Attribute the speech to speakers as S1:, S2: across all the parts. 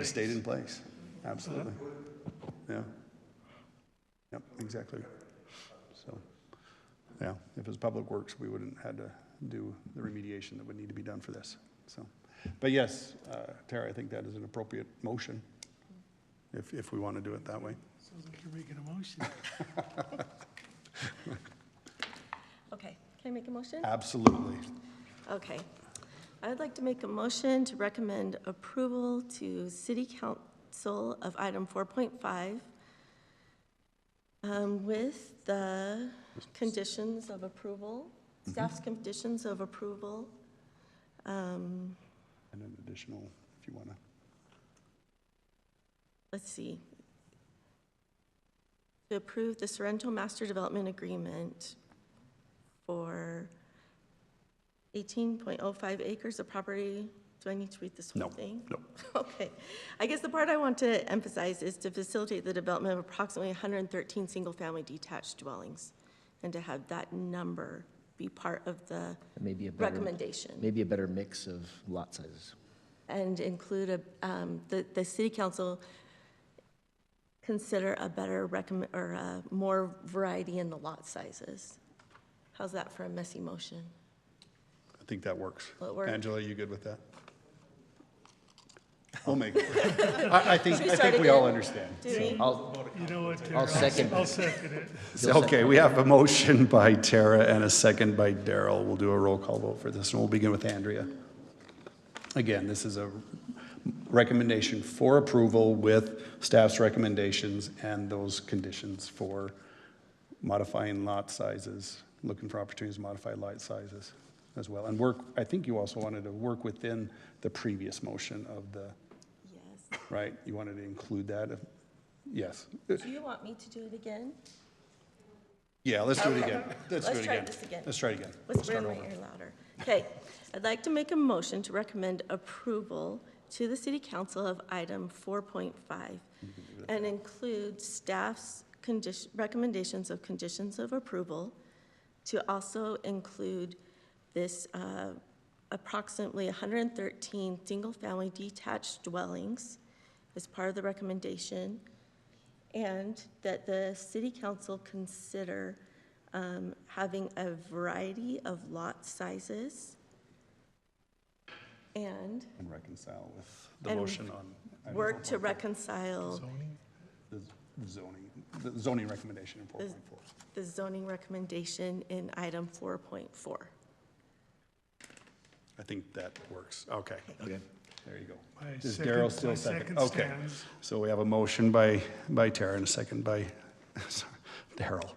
S1: have stayed in place. Absolutely. Yeah. Yep, exactly. So, yeah, if it was Public Works, we wouldn't had to do the remediation that would need to be done for this, so. But yes, uh, Tara, I think that is an appropriate motion, if, if we want to do it that way.
S2: Sounds like you're making a motion.
S3: Okay, can I make a motion?
S1: Absolutely.
S3: Okay. I would like to make a motion to recommend approval to City Council of item 4.5 um, with the conditions of approval, staff's conditions of approval. Um,
S1: And an additional, if you want to.
S3: Let's see. To approve the Sorrento Master Development Agreement for 18.05 acres of property. Do I need to read this
S1: No,
S3: whole thing?
S1: no.
S3: Okay. I guess the part I want to emphasize is to facilitate the development of approximately 113 single-family detached dwellings, and to have that number be part of the
S4: Maybe a better,
S3: recommendation,
S4: maybe a better mix of lot sizes.
S3: and include a, um, the, the city council consider a better recommend, or a more variety in the lot sizes. How's that for a messy motion?
S1: I think that works.
S3: Will it work?
S1: Angela, you good with that? We'll make it. I, I think,
S3: Should we
S1: I
S3: start
S1: think we all
S3: again?
S1: understand.
S3: Do we?
S4: I'll,
S2: You know what? Darryl?
S4: I'll second.
S2: I'll second it.
S1: So, Okay, we have a motion by Tara and a second by Daryl. We'll do a roll call vote for this, and we'll begin with Andrea. Again, this is a recommendation for approval with staff's recommendations and those conditions for modifying lot sizes, looking for opportunities to modify lot sizes as well. And work, I think you also wanted to work within the previous motion of the,
S3: Yes.
S1: right? You wanted to include that? Yes.
S3: Do you want me to do it again?
S1: Yeah, let's do it again. Let's do
S3: Let's
S1: it again.
S3: try this again.
S1: Let's try it again.
S3: Let's
S1: start
S3: turn my
S1: over.
S3: ear louder. Okay, I'd like to make a motion to recommend approval to the city council of item 4.5 and include staff's condition, recommendations of conditions of approval to also include this uh, approximately 113 single-family detached dwellings as part of the recommendation, and that the city council consider um, having a variety of lot sizes and
S1: And reconcile with the
S3: And
S1: motion on. item
S3: work to
S1: 4.4,
S3: reconcile
S1: The zoning, the zoning recommendation in 4.4.
S3: the zoning recommendation in item 4.4.
S1: I think that works. Okay.
S4: okay.
S1: There you go.
S2: My
S1: Is
S2: second-
S1: Daryl still
S2: my
S1: second?
S2: second
S1: Okay.
S2: stands.
S1: So we have a motion by, by Tara and a second by sorry, Daryl.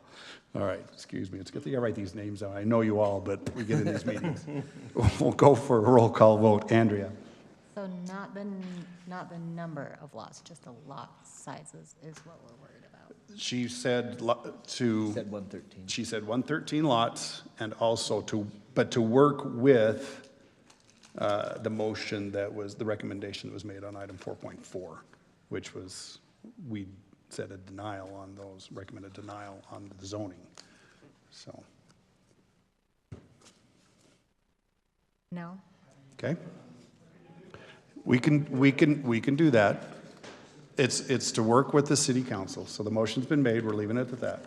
S1: All right, excuse me. It's a good thing I write these names down. I know you all, but we get in these meetings. We'll go for a roll call vote. Andrea?
S5: So not the, n- not the number of lots, just the lot sizes is what we're worried about.
S1: She said lo- to.
S4: Said 113.
S1: She said 113 lots and also to, but to work with uh, the motion that was, the recommendation that was made on item 4.4, which was, we said a denial on those, recommended denial on the zoning. So,
S5: No?
S1: okay? We can, we can, we can do that. It's, it's to work with the city council. So the motion's been made, we're leaving it at that.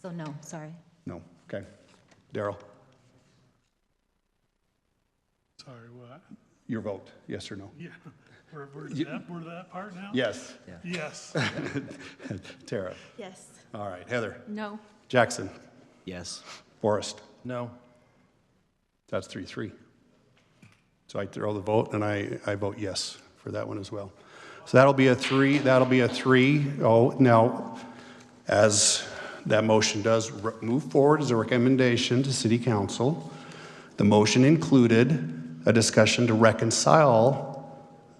S5: So no, sorry.
S1: No, okay. Daryl,
S2: Sorry, what?
S1: your vote, yes or no?
S2: Yeah, we're, we're
S1: You-
S2: that, we're that part now?
S1: Yes.
S2: Yes.
S1: Tara?
S3: Yes.
S1: All right, Heather.
S5: No.
S1: Jackson.
S4: Yes.
S1: Forrest.
S4: No.
S1: That's three, three. So I throw the vote and I, I vote yes for that one as well. So that'll be a three, that'll be a three. Oh, now, as that motion does re- move forward as a recommendation to city council, the motion included a discussion to reconcile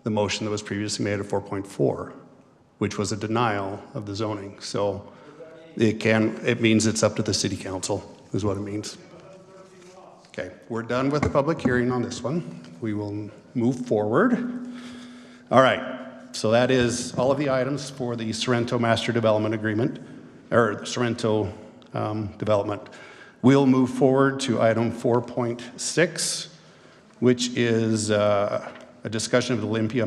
S1: the motion that was previously made at 4.4, which was a denial of the zoning. So it can, it means it's up to the city council, is what it means. Okay, we're done with the public hearing on this one. We will move forward. All right, so that is all of the items for the Sorrento Master Development Agreement, or Sorrento um, Development. We'll move forward to item 4.6, which is uh, a discussion of the Olympia